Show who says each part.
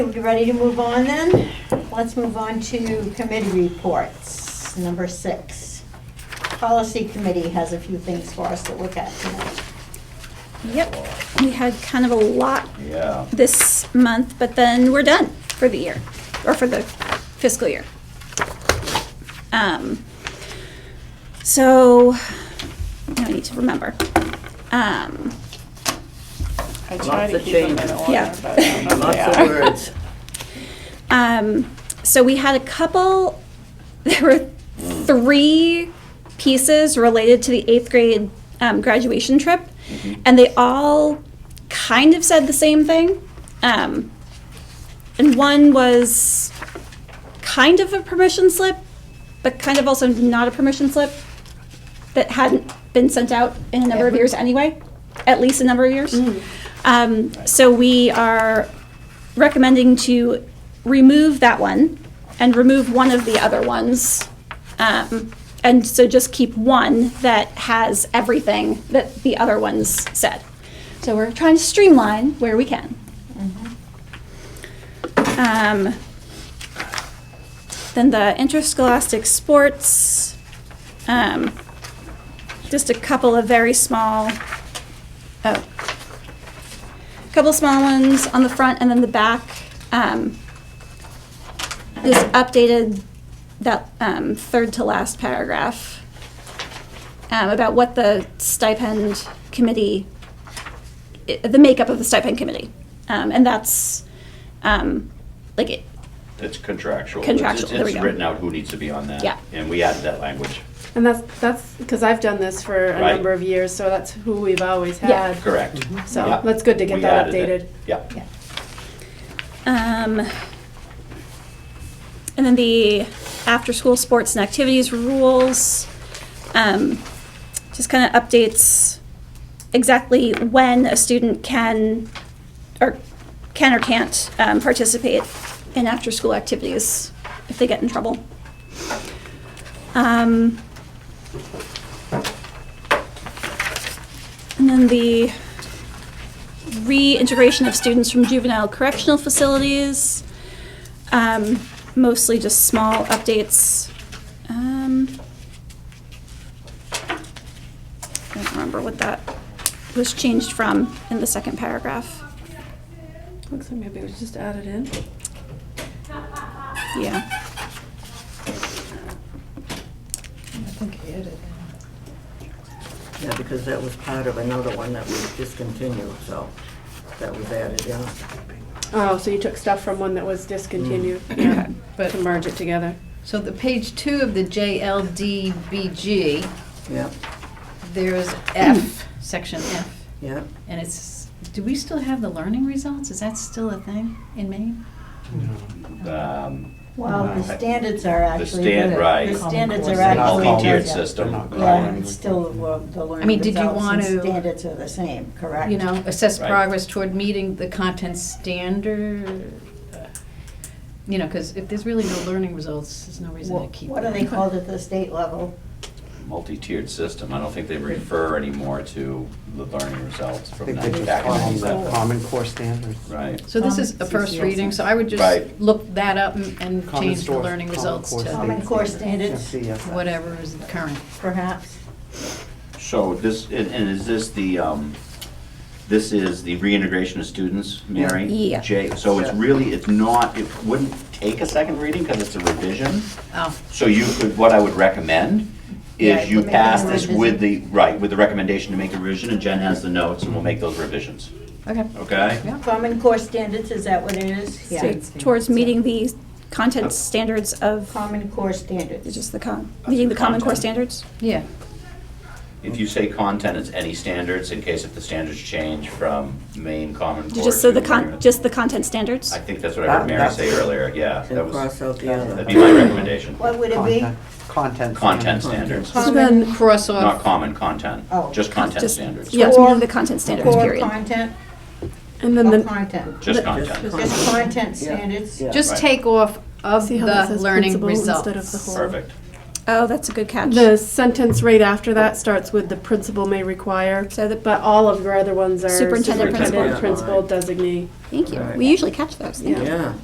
Speaker 1: We ready to move on then? Let's move on to committee reports, number six. Policy committee has a few things for us to look at tonight.
Speaker 2: Yep, we had kind of a lot
Speaker 3: Yeah.
Speaker 2: this month, but then we're done for the year, or for the fiscal year. Um, so, I need to remember. Um,
Speaker 4: I try
Speaker 5: Lots
Speaker 4: to
Speaker 5: of
Speaker 4: keep them in
Speaker 5: changes.
Speaker 4: order,
Speaker 2: Yeah.
Speaker 4: but I don't know if
Speaker 5: Lots
Speaker 4: they
Speaker 5: of
Speaker 4: are.
Speaker 5: words.
Speaker 2: um, so we had a couple, there were three pieces related to the eighth grade um, graduation trip, and they all kind of said the same thing. Um, and one was kind of a permission slip, but kind of also not a permission slip that hadn't been sent out in a number of years anyway, at least a number of years. Um, so we are recommending to remove that one and remove one of the other ones. Um, and so just keep one that has everything that the other ones said. So we're trying to streamline where we can. Um, then the interscholastic sports, um, just a couple of very small, oh, couple small ones on the front and then the back. Um, just updated that um, third to last paragraph um, about what the stipend committee, i- the makeup of the stipend committee, um, and that's um, like it,
Speaker 3: It's contractual.
Speaker 2: Contractual,
Speaker 3: It's-
Speaker 2: there we
Speaker 3: It's
Speaker 2: go.
Speaker 3: written out who needs to be on that.
Speaker 2: Yeah.
Speaker 3: And we added that language.
Speaker 4: And that's, that's, because I've done this for a
Speaker 3: Right.
Speaker 4: number of years, so that's who we've always
Speaker 2: Yeah.
Speaker 4: had.
Speaker 3: Correct.
Speaker 2: Mm-hmm.
Speaker 3: Yeah.
Speaker 4: So that's good to get
Speaker 3: We
Speaker 4: that
Speaker 3: added it.
Speaker 4: updated.
Speaker 3: Yeah.
Speaker 1: Yeah.
Speaker 2: Um, and then the after-school sports and activities rules, um, just kind of updates exactly when a student can, or can or can't, um, participate in after-school activities if they get in trouble. Um, and then the reintegration of students from juvenile correctional facilities. Um, mostly just small updates. Um, I don't remember what that was changed from in the second paragraph.
Speaker 4: Looks like maybe it was just added in.
Speaker 2: Yeah.
Speaker 5: Yeah, because that was part of another one that was discontinued, so that was added in.
Speaker 4: Oh, so you took stuff from one that was discontinued,
Speaker 3: Mm.
Speaker 4: yeah, to
Speaker 6: But,
Speaker 4: merge it together.
Speaker 6: so the page two of the JLDBG,
Speaker 5: Yeah,
Speaker 6: there's F, section F,
Speaker 5: yeah.
Speaker 6: and it's, do we still have the learning results? Is that still a thing in Maine?
Speaker 3: Um,
Speaker 1: Well, the standards are
Speaker 3: The
Speaker 1: actually.
Speaker 3: stand, right.
Speaker 1: The standards are
Speaker 7: They're not
Speaker 1: actually.
Speaker 3: Multi-tiered
Speaker 1: yeah.
Speaker 3: system.
Speaker 1: Yeah, it's still the wo- the
Speaker 6: I
Speaker 1: learning
Speaker 6: mean, did you
Speaker 1: results and
Speaker 6: want to-
Speaker 1: standards are the same, correct?
Speaker 6: You know, assess
Speaker 3: Right.
Speaker 6: progress toward meeting the content standard, you know, because if there's really no learning results, there's no reason to
Speaker 1: What
Speaker 6: keep.
Speaker 1: what are
Speaker 6: it.
Speaker 1: they called at the state level?
Speaker 3: Multi-tiered system. I don't think they refer anymore to the learning results
Speaker 7: I
Speaker 3: from
Speaker 7: think they
Speaker 3: that
Speaker 7: just
Speaker 3: back
Speaker 7: follow
Speaker 3: in
Speaker 7: the
Speaker 3: the
Speaker 7: Common Core standards.
Speaker 3: Right.
Speaker 6: So this is a
Speaker 7: Um,
Speaker 6: first reading, so I would just
Speaker 3: Right.
Speaker 6: look that up and and
Speaker 7: Common
Speaker 6: change the
Speaker 7: source-
Speaker 6: learning
Speaker 7: common
Speaker 6: results
Speaker 7: core
Speaker 6: to
Speaker 1: Common
Speaker 7: state
Speaker 1: core standards.
Speaker 7: CSS.
Speaker 6: whatever is current.
Speaker 1: Perhaps?
Speaker 3: So this, and and is this the, um, this is the reintegration of students, Mary?
Speaker 2: Yeah.
Speaker 3: J, so it's
Speaker 5: Yeah.
Speaker 3: really, it's not, it wouldn't take a second reading because it's a revision?
Speaker 6: Oh,
Speaker 3: So you could, what I would recommend
Speaker 6: Yeah,
Speaker 3: is you
Speaker 6: make a
Speaker 3: pass this
Speaker 6: revision.
Speaker 3: with the, right, with the recommendation to make a revision, and Jen has the notes, and we'll make those revisions,
Speaker 6: okay.
Speaker 3: okay?
Speaker 6: Yeah.
Speaker 1: Common core standards, is that what it is? Yeah.
Speaker 2: Towards meeting the content standards of,
Speaker 1: Common core standards.
Speaker 2: it's just the con, meeting the common core
Speaker 3: Content.
Speaker 2: standards.
Speaker 6: Yeah,
Speaker 3: If you say content, it's any standards, in case if the standards change from main common core
Speaker 2: Just so
Speaker 3: to
Speaker 2: the con,
Speaker 3: agreement.
Speaker 2: just the content standards.
Speaker 3: I think that's what I heard
Speaker 5: That-
Speaker 3: Mary
Speaker 5: that's-
Speaker 3: say earlier, yeah, that
Speaker 5: And
Speaker 3: was,
Speaker 5: cross out the other.
Speaker 3: that'd be my recommendation.
Speaker 1: What would it be?
Speaker 7: Content- Content.
Speaker 3: Content
Speaker 7: standards.
Speaker 3: standards,
Speaker 6: So
Speaker 1: Common-
Speaker 6: then cross
Speaker 3: not
Speaker 6: off,
Speaker 3: common content,
Speaker 1: Oh.
Speaker 3: just content
Speaker 2: Just-
Speaker 3: standards,
Speaker 2: Yes,
Speaker 1: Core-
Speaker 2: meeting the content standards,
Speaker 1: Core
Speaker 2: period.
Speaker 1: content?
Speaker 8: And then
Speaker 1: Or
Speaker 8: the,
Speaker 1: content?
Speaker 3: just
Speaker 5: Just
Speaker 3: content,
Speaker 5: con-
Speaker 1: Just content standards?
Speaker 5: Yeah.
Speaker 6: just
Speaker 3: Right.
Speaker 6: take off of
Speaker 8: see how that
Speaker 6: the
Speaker 8: says
Speaker 6: learning
Speaker 8: principal instead of the
Speaker 6: results.
Speaker 8: whole.
Speaker 3: perfect.
Speaker 2: Oh, that's a good catch.
Speaker 4: The sentence right after that starts with the principal may require,
Speaker 2: So the-
Speaker 4: but all of your other ones are
Speaker 2: Superintendent,
Speaker 4: superintendent,
Speaker 5: principal.
Speaker 4: principal, designee.
Speaker 2: Thank you.
Speaker 5: Right.
Speaker 2: We usually catch those. Thank you.
Speaker 5: Yeah.